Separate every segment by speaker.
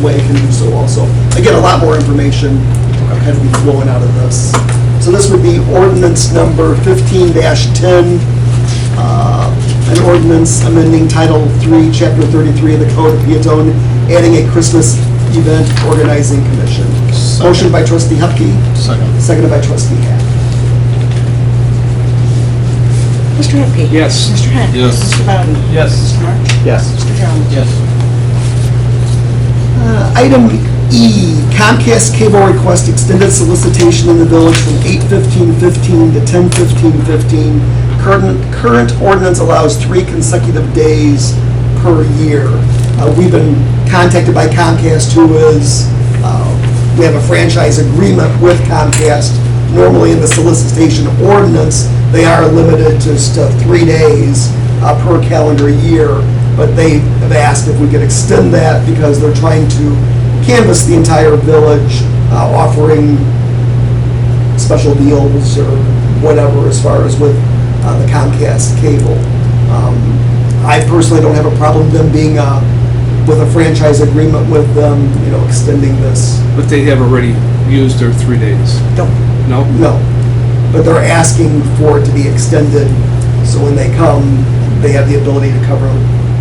Speaker 1: way can do so also. Again, a lot more information had to be flowing out of this. So this would be ordinance number fifteen ten, uh, an ordinance amending Title III, Chapter thirty-three of the Code of Peatone, adding a Christmas event organizing commission.
Speaker 2: Second.
Speaker 1: Motion by trustee Hupkey,
Speaker 2: Second.
Speaker 1: seconded by trustee Hack.
Speaker 3: Mr. Hupkey.
Speaker 2: Yes.
Speaker 3: Mr. Hunt.
Speaker 2: Yes.
Speaker 3: Mr. Bowden.
Speaker 2: Yes.
Speaker 3: Mr. March.
Speaker 2: Yes.
Speaker 3: Mr. Jones.
Speaker 2: Yes.
Speaker 1: Uh, Item E, Comcast cable request extended solicitation in the village from 8:15:15 to 10:15:15. Current current ordinance allows three consecutive days per year. Uh, We've been contacted by Comcast, who is, uh, we have a franchise agreement with Comcast. Normally, in the solicitation ordinance, they are limited to just, uh, three days uh, per calendar year but they have asked if we could extend that because they're trying to canvass the entire village, uh, offering special deals or whatever as far as with uh, the Comcast cable. Um, I personally don't have a problem them being, uh, with a franchise agreement with them, you know, extending this,
Speaker 4: But they have already used their three days.
Speaker 1: no,
Speaker 4: No?
Speaker 1: but they're asking for it to be extended, so when they come, they have the ability to cover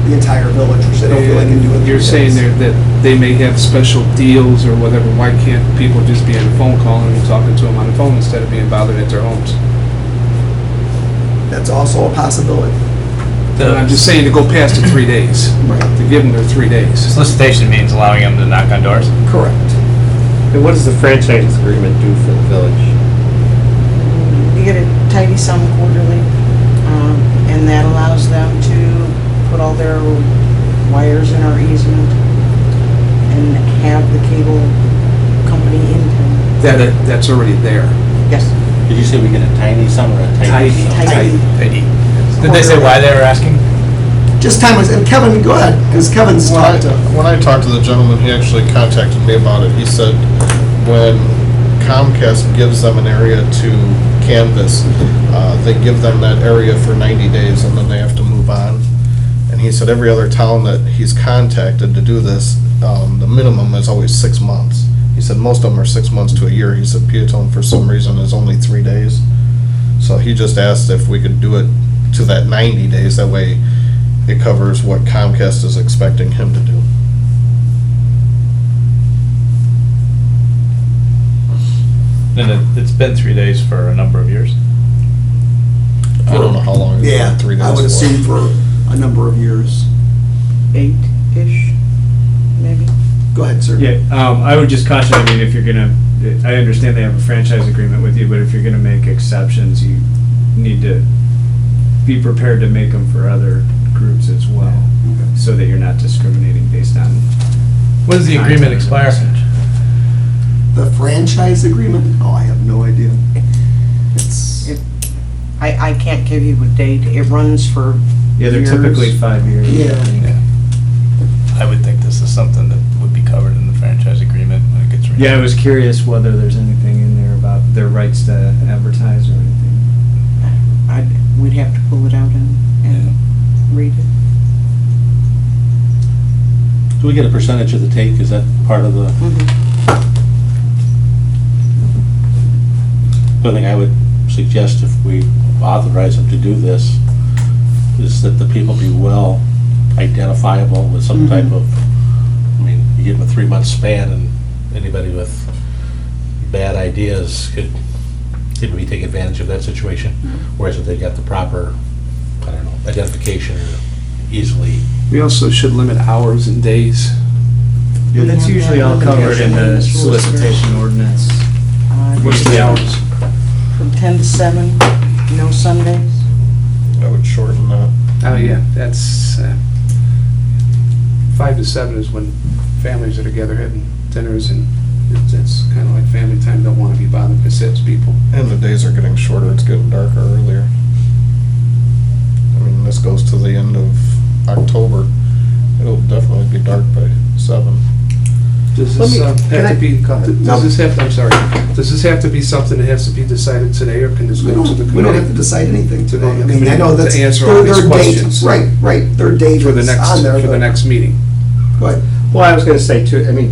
Speaker 1: the entire village, which they don't feel they can do in
Speaker 4: And
Speaker 1: three
Speaker 4: You're saying
Speaker 1: days.
Speaker 4: there that they may have special deals or whatever. Why can't people just be on a phone call and talking to them on the phone instead of being bothered at their homes?
Speaker 1: That's also a possibility.
Speaker 4: And I'm just saying to go past the three days,
Speaker 1: Right.
Speaker 4: to give them their three days.
Speaker 2: Solicitation means allowing them to knock on doors.
Speaker 1: Correct.
Speaker 5: And what does the franchise agreement do for the village?
Speaker 3: You get a tidy sum quarterly, um, and that allows them to put all their wires in our easement and have the cable company in town.
Speaker 4: That, that's already there.
Speaker 3: Yes.
Speaker 6: Did you say we get a tiny sum or a tidy
Speaker 4: Tidy.
Speaker 6: sum?
Speaker 3: Tidy.
Speaker 2: Did they say why they were asking?
Speaker 1: Just time was, and Kevin, go ahead, because Kevin's
Speaker 2: When I,
Speaker 1: talked to.
Speaker 2: when I talked to the gentleman, he actually contacted me about it. He said, when Comcast gives them an area to canvas, uh, they give them that area for 90 days and then they have to move on. And he said every other town that he's contacted to do this, um, the minimum is always six months. He said most of them are six months to a year. He said Peatone, for some reason, is only three days. So he just asked if we could do it to that 90 days, that way it covers what Comcast is expecting him to do.
Speaker 7: And it, it's been three days for a number of years.
Speaker 2: I don't know how long. it's been,
Speaker 1: Um, Yeah,
Speaker 2: three days.
Speaker 1: I would
Speaker 2: for.
Speaker 1: assume for a number of years.
Speaker 3: Eight-ish, maybe?
Speaker 1: Go ahead, sir.
Speaker 8: Yeah, um, I would just caution, I mean, if you're gonna, I understand they have a franchise agreement with you, but if you're gonna make exceptions, you need to be prepared to make them for other groups as well, so that you're not discriminating based on,
Speaker 7: When does the agreement expire?
Speaker 1: The franchise agreement? Oh, I have no idea. It's,
Speaker 3: It- I, I can't give you a date. It runs for
Speaker 8: yeah, they're
Speaker 3: years.
Speaker 8: typically five years.
Speaker 1: yeah,
Speaker 7: I would think this is something that would be covered in the franchise agreement when it gets renewed.
Speaker 8: Yeah, I was curious whether there's anything in there about their rights to advertise or anything.
Speaker 3: I'd, we'd have to pull it out and, and read it.
Speaker 6: Do we get a percentage of the take? Is that part of the, the thing I would suggest if we authorize them to do this, is that the people be well identifiable with some type
Speaker 1: Mhm.
Speaker 6: of, I mean, you give them a three-month span, and anybody with bad ideas could, could we take advantage of that situation? Whereas if they got the proper, I don't know, identification easily.
Speaker 4: We also should limit hours and days.
Speaker 8: Yeah, that's
Speaker 3: Yeah,
Speaker 8: usually all
Speaker 3: yeah,
Speaker 8: covered in the
Speaker 3: yeah.
Speaker 8: solicitation ordinance.
Speaker 3: Uh,
Speaker 4: What's the hours?
Speaker 3: From 10 to 7, no Sundays.
Speaker 2: I would shorten that.
Speaker 4: Oh, yeah, that's, uh, five to seven is when families are together having dinners and it's- it's kind of like family time, don't want to be bothered by six people.
Speaker 2: And the days are getting shorter, it's getting darker earlier. I mean, this goes to the end of October. It'll definitely be dark by seven.
Speaker 4: Does
Speaker 9: Let
Speaker 4: this
Speaker 9: me-
Speaker 4: um,
Speaker 9: can
Speaker 4: have
Speaker 9: I-
Speaker 4: to be,
Speaker 1: uh, No.
Speaker 4: does this have, I'm sorry, does this have to be something that has to be decided today, or can this
Speaker 1: we
Speaker 4: go to the
Speaker 1: don't, we don't have to
Speaker 4: committee?
Speaker 1: decide anything
Speaker 4: To the
Speaker 1: today. I mean, I know
Speaker 4: committee to
Speaker 1: that's.
Speaker 4: answer
Speaker 1: their-
Speaker 4: all these
Speaker 1: their date-
Speaker 4: questions.
Speaker 1: Right, right, their date
Speaker 4: For the
Speaker 1: is
Speaker 4: next,
Speaker 1: on there.
Speaker 4: for the
Speaker 1: but-
Speaker 4: next meeting?
Speaker 1: Go ahead.
Speaker 9: Well, I was gonna say too, I mean,